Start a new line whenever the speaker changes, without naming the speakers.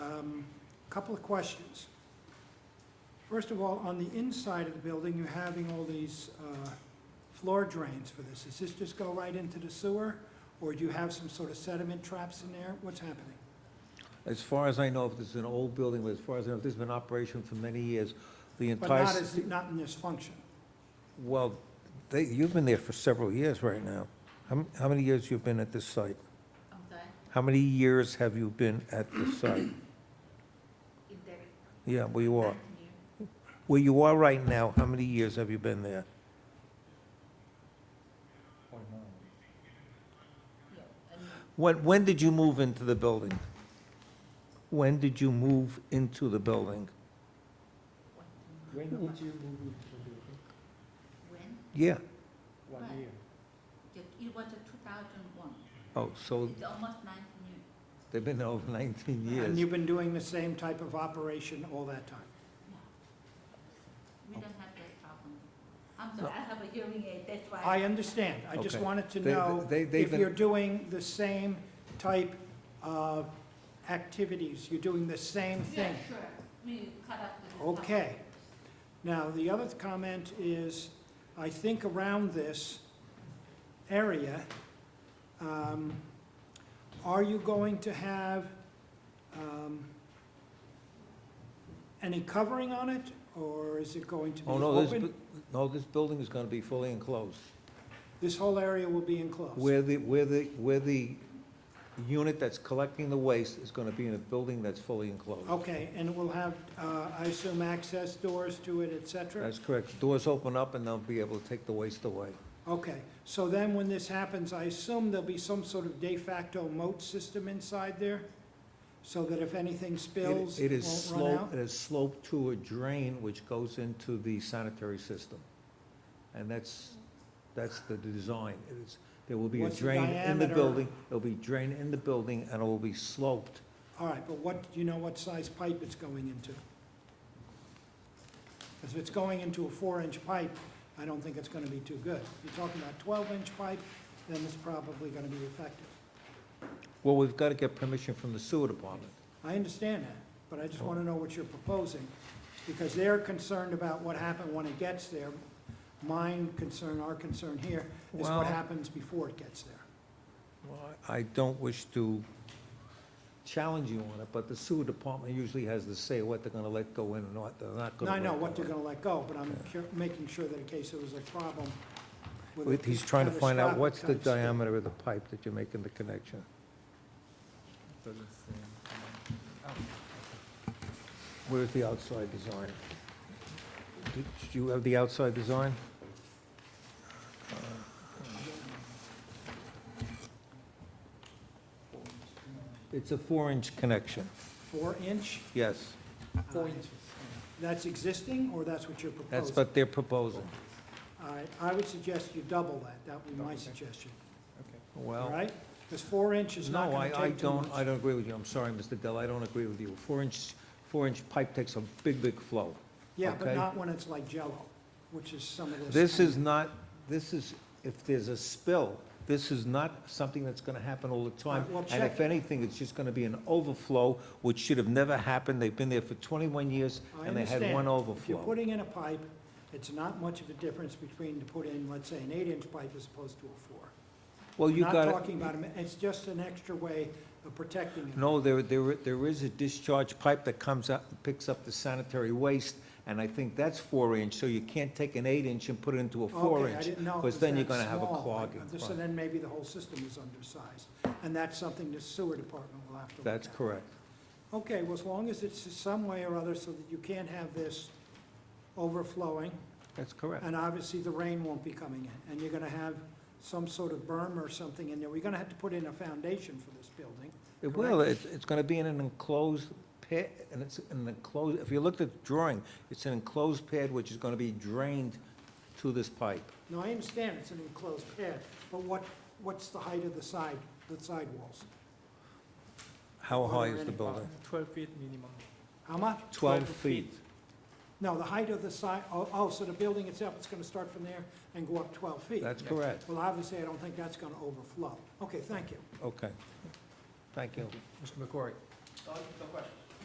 Um, Couple of questions. First of all, on the inside of the building, you're having all these uh, floor drains for this. Does this just go right into the sewer? Or do you have some sort of sediment traps in there? What's happening?
As far as I know, if this is an old building, but as far as I know, if this has been in operation for many years, the
But
entire,
not
s-
as, not in this function.
well, they, you've been there for several years right now. How, m- how many years you've been at this site?
I'm sorry,
How many years have you been at this site?
if there is.
Yeah, where you are.
continue.
Where you are right now, how many years have you been there?
Yeah, and
When, when did you move into the building? When did you move into the building?
what-
When did you move into the building?
When?
Yeah,
One
Right.
year.
It it was two thousand one.
oh, so
It's almost nineteen years.
they've been there over 19
And
years.
you've been doing the same type of operation all that time?
We don't have that problem. I'm sorry, I have a hearing aid, that's why.
I understand. I just
Okay.
wanted to
They-
know
they- they've
if
been-
you're doing the same type of activities, you're doing the same
Yeah,
thing.
sure, we cut up the.
Okay. Now, the other comment is, I think around this area, um, are you going to have um, any covering on it, or is it going to be
Oh, no, this,
open?
bu- no, this building is going to be fully enclosed.
This whole area will be enclosed?
Where the, where the, where the unit that's collecting the waste is going to be in a building that's fully enclosed.
Okay, and it will have, uh, I assume, access doors to it, et cetera?
That's correct. Doors open up and they'll be able to take the waste away.
Okay, so then when this happens, I assume there'll be some sort of de facto moat system inside there? So that if anything
It-
spills,
It
it
is
won't run
sloped,
out?
it is sloped to a drain which goes into the sanitary system. And that's, that's the design. It is, there will be a
What's the
drain in the
diameter?
building. There'll be drain in the building and it will be sloped.
All right, but what, do you know what size pipe it's going into? Because if it's going into a four-inch pipe, I don't think it's going to be too good. If you're talking about twelve-inch pipe, then it's probably going to be effective.
Well, we've got to get permission from the sewer department.
I understand that, but I
Oh.
just want to know what you're proposing, because they're concerned about what happened when it gets there. Mine concern, our concern here, is
Well-
what happens before it gets there.
Well, I don't wish to challenge you on it, but the sewer department usually has the say what they're gonna let go in and what they're not
Now,
gonna
I
let go in.
know what they're gonna let go, but I'm cur- making sure that in case there was a problem with. a
He's trying to find out what's the
catastrophic type spill.
diameter of the pipe that you're making the connection.
Doesn't say.
Where's the outside design? Did you have the outside design? It's a four-inch connection,
Four inch,
yes.
Four
Uh,
inches.
that's existing, or that's what you're proposing?
That's what they're proposing.
All right, I would suggest you double that, that would be my
Okay.
suggestion,
Okay.
Well.
all right? Because four inch is not
No,
gonna
I, I
take too much.
don't, I don't agree with you. I'm sorry, Mr. Dell, I don't agree with you. Four-inch, four-inch pipe takes a big, big flow.
Yeah,
okay.
but not when it's like Jello, which is some of this.
This is not, this is, if there's a spill, this is not something that's gonna happen all the time.
All right, well,
And
check
if anything, it's just gonna be an overflow, which should have never happened. They've been there for twenty-one years,
I
and they had
understand.
one
If you're
overflow.
putting in a pipe, it's not much of a difference between to put in, let's say, an eight-inch pipe as opposed to a four.
Well,
We're
you
Not
got,
talking about, a mi- it's just an extra way of protecting it.
no, there, there, there is a discharge pipe that comes up, picks up the sanitary waste, and I think that's four-inch, so you can't take an eight-inch and put it into a
Okay, I
four-inch.
didn't know. it
because
was
then you're
that
gonna have a
small.
clog in
Uh, So
front.
then maybe the whole system is undersized, and that's something the sewer department will have to look
That's
at.
correct.
Okay, well, as long as it's some way or other so that you can't have this overflowing,
That's correct.
And obviously, the rain won't be coming in, and you're gonna have some sort of berm or something in there. We're gonna have to put in a foundation for this building.
It will, it's, it's gonna be in an enclosed pit, and it's an enclosed, if you looked at the drawing, it's an enclosed pad which is gonna be drained to this pipe.
Now, I understand it's an enclosed pad, but what, what's the height of the side, the sidewalls?
How
Are
high
there
is the
any
building?
Twelve feet minimum.
How much?
Twelve
12
feet.
feet.
No, the height of the side, oh, oh, so the building itself, it's gonna start from there and go up twelve feet?
That's
Yeah.
correct.
Well, obviously, I don't think that's gonna overflow. Okay, thank you.
Okay. Thank you.
Mr. McCory?
Uh, No question.